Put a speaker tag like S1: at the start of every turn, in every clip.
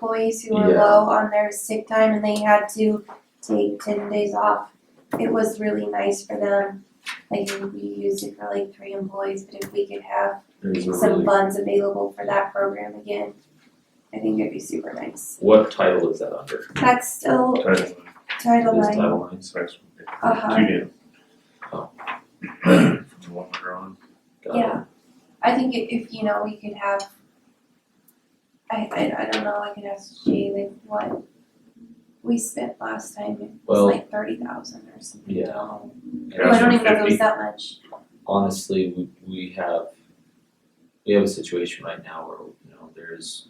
S1: employees who were
S2: Yeah.
S1: low on their sick time and they had to take ten days off. It was really nice for them. Like we used it for like three employees, but if we could have
S2: There's a
S1: some
S2: really,
S1: funds available for that program again, I think it'd be super nice.
S2: what title is that under?
S1: That's still
S3: Title
S1: Title
S2: Is
S1: IX.
S2: Title IX?
S3: Sex.
S1: Uh-huh.
S3: Two new.
S2: Oh.
S3: The one we're on.
S2: Got it.
S1: Yeah, I think i- if, you know, we could have, I, I, I don't know, I could ask Jay like what we spent last time, it was
S2: Well-
S1: like thirty thousand or something.
S2: Yeah.
S1: Oh,
S2: And
S1: I don't even know if it
S3: 50.
S1: was that much,
S2: honestly, we, we have, we have a situation right now where, you know, there's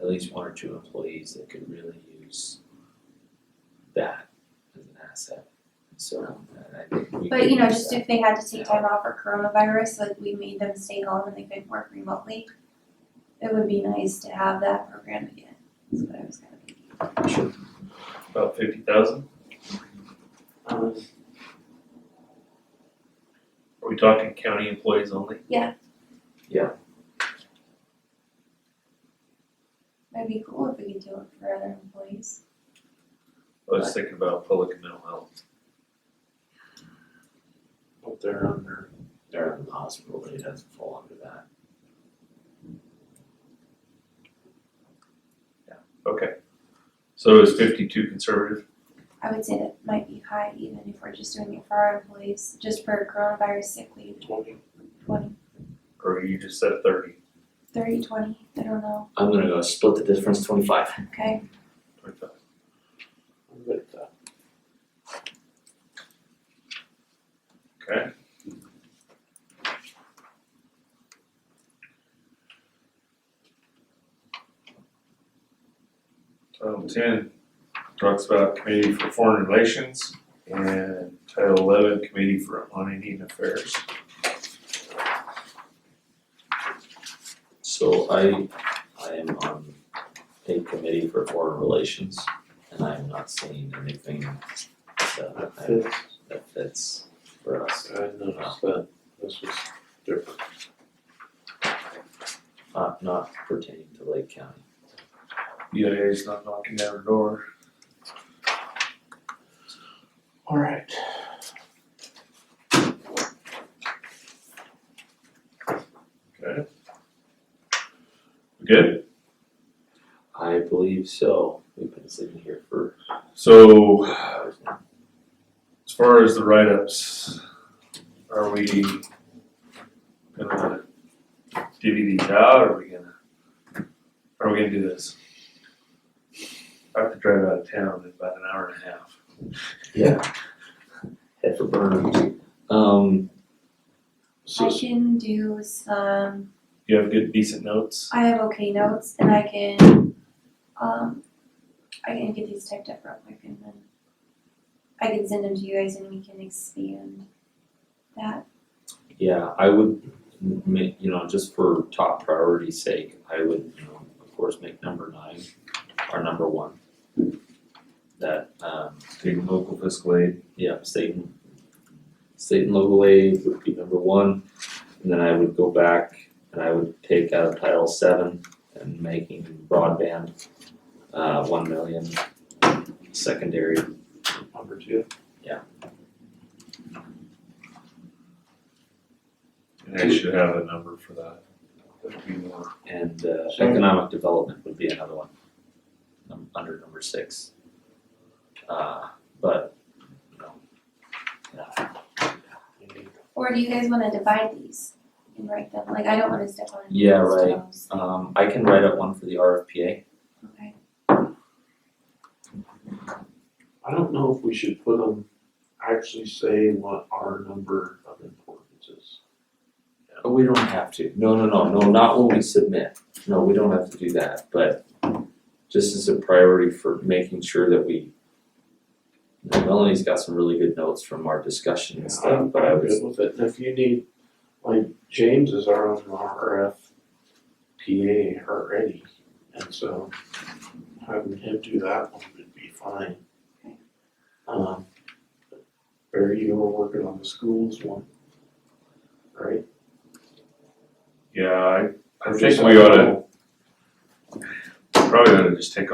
S2: at least one or two employees that could really use that as an asset. So, and I think we
S1: but
S2: could
S1: you know,
S2: use
S1: just
S2: that.
S1: if they had to take time off for coronavirus, like we made them stay home and they could work remotely. It would be nice to have that program again, is what I was gonna think.
S3: About fifty thousand?
S4: Um,
S3: Are we talking county employees only?
S1: That'd be cool if we could do it for other employees.
S3: I was thinking about public and mental health.
S4: well, they're under,
S2: They're in the hospital, but it doesn't fall under that.
S3: Okay. So is fifty-two conservative?
S1: I would say that might be high even if we're just doing it for our employees, just for coronavirus sick leave.
S4: twenty,
S1: 20,
S3: Or you just said thirty?
S1: 30, 20, I don't know,
S2: I'm gonna go split the difference twenty-five.
S1: okay?
S3: Twenty-five.
S4: I'm good at that.
S3: Okay. Title ten talks about committee for foreign relations and title eleven committee for on Indian affairs.
S2: So I, I am on a committee for foreign relations, and I'm not seeing anything that I-
S4: Fifth,
S2: that fits for us.
S4: I noticed that this was different.
S2: not not pertaining to Lake County.
S3: UAA E is not knocking down the door.
S4: All right.
S3: Okay. We Good,
S2: I believe so. We've been sitting here for
S3: so
S2: hours now.
S3: as far as the write-ups, are we gonna divvy these out, or are we gonna, are we gonna do this? I have to drive out of town in about an hour and a half.
S2: Yeah. Head for Burnham. Um,
S1: I
S4: So,
S1: can do some,
S3: You have good decent notes?
S1: I have okay notes and I can, um, I can get these typed up real quick and then I can send them to you guys and we can expand that.
S2: yeah, I would make, you know, just for top priority's sake, I would, you know, of course, make number nine our number one. That, um,
S3: State and local fiscal aid.
S2: yeah, state and, state and local aid would be number one. And then I would go back and I would take out Title seven and making broadband, uh, one million secondary.
S4: number two,
S3: And I should have a number for that. That'd be more.
S2: And, uh,
S4: Sure.
S2: economic development would be another one, num- under number six. Uh, but, you know, yeah,
S4: you need
S1: Or do you guys wanna divide these and write them, like I don't wanna step on anyone's toes.
S2: Yeah, right. um, I can write up one for the RFPA.
S1: Okay,
S4: I don't know if we should put them, actually say what our number of importance is.
S2: Oh, we don't have to. No, no, no, no, not when we submit. No, we don't have to do that, but just as a priority for making sure that we. you know, Melanie's got some really good notes from our discussion and stuff,
S4: I'm,
S2: but I
S4: I'm
S2: was,
S4: good with it, and if you need, like, James is our own RFPA already, and so having him do that one would be fine.
S1: Okay.
S4: Um, Barry, you were working on the schools one, right?
S3: Yeah, I, I think we ought to, probably ought to just take